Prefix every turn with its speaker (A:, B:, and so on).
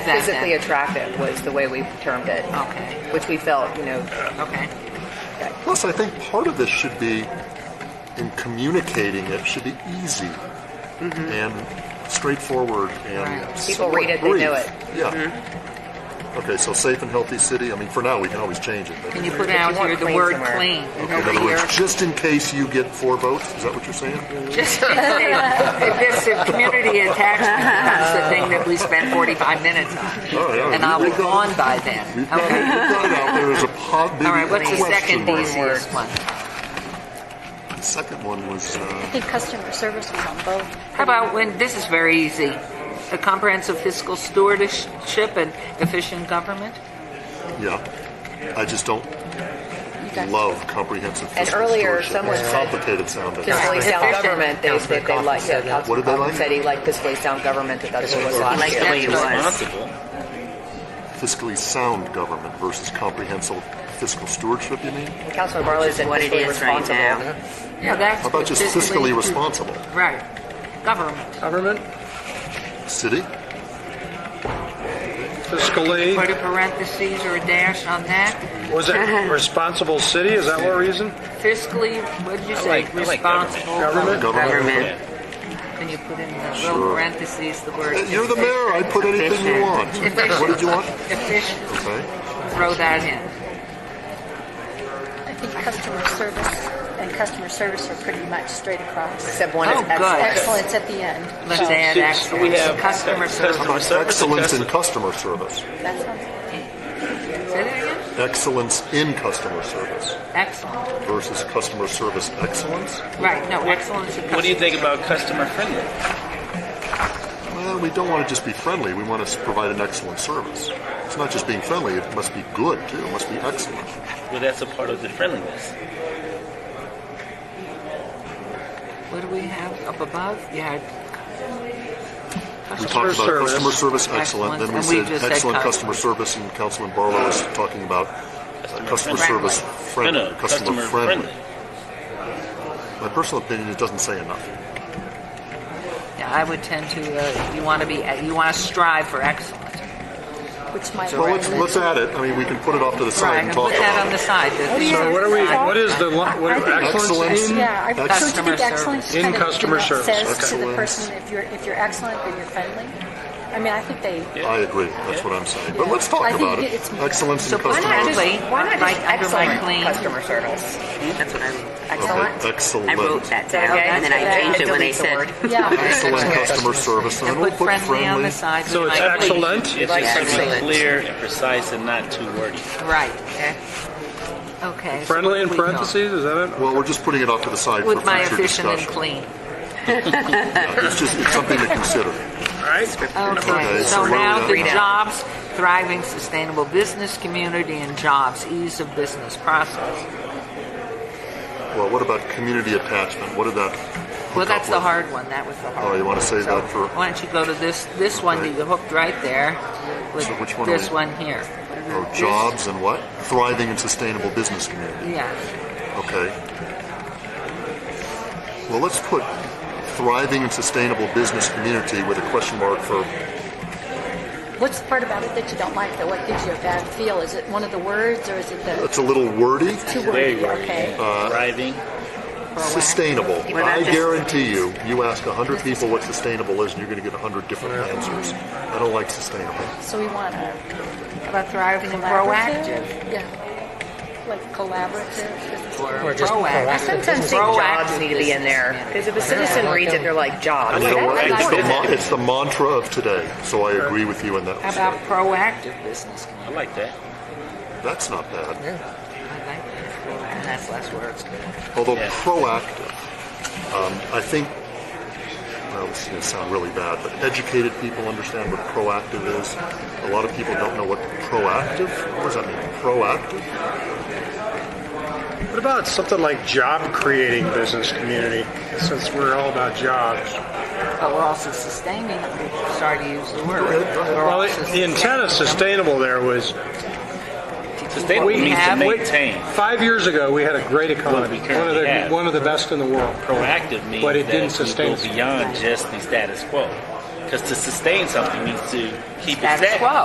A: attractive.
B: physically attractive was the way we termed it, um,
A: Okay,
B: which we felt, you know,
A: okay.
C: Plus, I think part of this should be in communicating it should be easy and straightforward and
A: Mm-hmm. Right.
B: People read it, they
C: brief.
B: know it.
C: Yeah.
A: Mm-hmm.
C: Okay, so safe and healthy city. I mean, for now, we can always change it. But
A: Can you put
B: If you
A: down
B: want
A: here the
B: clean
A: word
B: somewhere.
A: clean?
C: in
A: over
C: other
A: here? Mm-hmm.
C: words, just in case you get four votes, is that what you're saying?
A: Just in case. If this if community attachment becomes the thing that we spend 45 minutes on.
C: All right, all right.
A: And I'll
C: We-
A: be
C: we got
A: gone
C: it.
A: by then.
C: We've got, it,
A: Okay.
C: we've got it out there as a pod.
A: All right, what's the second
C: one?
A: easiest one?
C: The second one was uh,
D: I think customer service was on both.
A: How about when, this is very easy, a comprehensive fiscal stewardship and efficient government?
C: yeah. I just don't love comprehensive.
B: And
C: fiscal
B: earlier,
C: stewardship.
B: someone
C: it's
B: said-
C: complicated sounding.
B: fiscally sound
A: Efficient.
B: government, they said they like, yeah,
C: What
B: Councilman
C: did they
B: Coffin
C: like?
B: said he liked fiscally sound government, that that's what was
A: He liked
B: last
A: that
B: year.
A: way it was.
C: fiscally sound government versus comprehensive fiscal stewardship. You mean?
B: Councilman Barlow said
E: What it
B: fiscally
E: is right
B: responsible.
E: now.
A: Yeah, that's.
C: How about just
A: Mm-hmm.
C: fiscally responsible?
A: Right. Government.
F: Government,
C: City?
A: Put
F: fiscally,
A: a parentheses or a dash on that.
F: was it responsible city? Is that what reason?
A: Fiscally, what'd you say,
E: like- I like government.
A: responsible?
F: Government?
E: Government.
A: Can you put in the
C: Sure.
A: little parentheses, the word?
C: Uh, You're the mayor. I put anything you want.
A: Efficient.
C: What did you want?
A: Efficient,
C: Okay.
A: throw that in.
D: I think customer service and customer service are pretty much straight across.
B: Except one is
A: Oh, good.
B: excellent.
D: Excellence at the end.
A: Let's add
E: so
A: excellence.
E: we have
A: customer service.
C: How about excellence in customer service?
D: That sounds
A: Say that again?
C: Excellence in customer service
A: Excellent.
C: versus customer service excellence?
A: Right, no, excellence in
E: What do you
A: customer.
E: think about customer friendly?
C: Well, we don't want to just be friendly. We want to provide an excellent service. It's not just being friendly. It must be good too. It must be excellent.
E: Well, that's a part of the friendliness.
A: What do we have up above? You had.
C: We talked about
F: service.
C: customer service excellent, then we
A: Excellence, and we
C: said
A: just said
C: excellent
A: cus-
C: customer service, and Councilman Barlow was talking about uh, customer
A: friendly.
C: service
E: No,
C: friendly,
E: no,
C: customer friendly. My personal opinion, it doesn't say enough.
A: Yeah, I would tend to, uh, you want to be, you want to strive for excellence.
D: good. Which might
C: Well, let's, let's add it, I mean, we can put it off to the
A: Right,
C: side and
A: and
C: talk
A: put that
C: about
A: on
C: it.
A: the side. the-
F: So what are we, what is the, lo- what, excellence in?
D: Yeah, I so do you
A: Customer
D: think excellence
F: In
D: kind of
F: customer
D: you know,
F: service,
D: says to the
C: excellence.
D: person if you're if you're excellent then you're friendly. I mean, I think they
C: I agree, that's what I'm saying, but let's
D: I
C: talk
D: think
C: about
D: it-
C: it.
D: it's-
C: Excellence in
A: So why not
C: customer.
A: just-
C: Okay,
B: Why
A: Like
B: not just
A: under my
B: excellent
A: clean.
B: customer service?
E: That's what I wrote.
B: Excellent.
E: I wrote
C: Oh, Excellent,
E: that down, and then I changed it when they
B: Delete the
E: said.
B: word.
D: yeah.
C: excellent customer service, and
A: And
C: then we'll
A: put
C: put
A: friendly on the
C: friendly.
A: side.
F: So
A: with
F: it's
A: my please.
F: excellent?
E: It's
B: Like
E: just something
B: excellent.
E: clear and precise and not too wordy.
A: Right. Okay. Okay. so
F: Friendly in
A: we go.
F: parentheses, is that it?
C: Well, we're just putting it off to the side for
A: With my
C: future
A: efficient and
C: discussion.
A: clean.
C: Yeah, It's just, it's something to consider.
F: All right.
A: Okay,
C: Okay, so
A: so
C: where we
A: now
C: at
A: the
C: now?
A: jobs, thriving, sustainable business community and jobs, ease of business process.
C: Well, what about community attachment? What did that hook
A: Well,
C: up
A: that's the
C: with?
A: hard one, that was the hard
C: Oh,
A: one.
C: you want to save that for?
A: Why don't you go to this, this one that you hooked right there with
C: So which one are
A: this
C: we-
A: one here.
C: Oh, jobs and what? Thriving and sustainable business community.
A: Yeah,
C: Okay. Well, let's put thriving and sustainable business community with a question mark for.
D: What's the part about it that you don't like though? What gives you a bad feel? Is it one of the words or is it the
C: It's a little wordy.
D: two
E: Very
D: words?
E: wordy.
D: Okay.
C: Uh,
E: Driving.
C: Sustainable.
A: Well, that
C: I
A: just-
C: guarantee you, you ask hundred people what sustainable is, and you're going to get hundred different answers. I don't like sustainable.
D: So we want a
A: about thriving and
D: collaborative.
A: proactive.
D: Yeah. Like collaborative.
A: Or
F: just
B: I
A: proactive.
B: sometimes think jobs
A: Proactive
B: need to be in there, because if a citizen reads it, they're like, jobs.
C: And you know what?
D: like
C: It's the,
D: that.
C: mon- it's the mantra of today. So I agree with you in that
A: How about
C: respect.
A: proactive business community?
E: I like that.
C: That's not bad.
A: I like that. And that's less words.
C: Although
E: Yeah.
C: proactive, um, I think. Well, this is going to sound really bad, but educated people understand what proactive is. A lot of people don't know what proactive. What does that mean? Proactive.
F: What about something like job creating business community, since we're all about jobs?
A: But we're also sustaining, sorry to use the word. We're
F: Well,
A: also
F: the- the intent of
A: sustaining
F: sustainable there was,
E: Sustainable
A: We
E: means
A: have-
E: to maintain.
F: five years ago, we had a great
E: Well, we
F: economy, one of
E: currently
F: the,
E: have.
F: one of the best in the world.
E: Proactive means
F: But it
E: that
F: didn't
E: you
F: sustain us.
E: go beyond just the status quo. Because to sustain something means to keep
A: Status
E: it
A: quo.
E: static.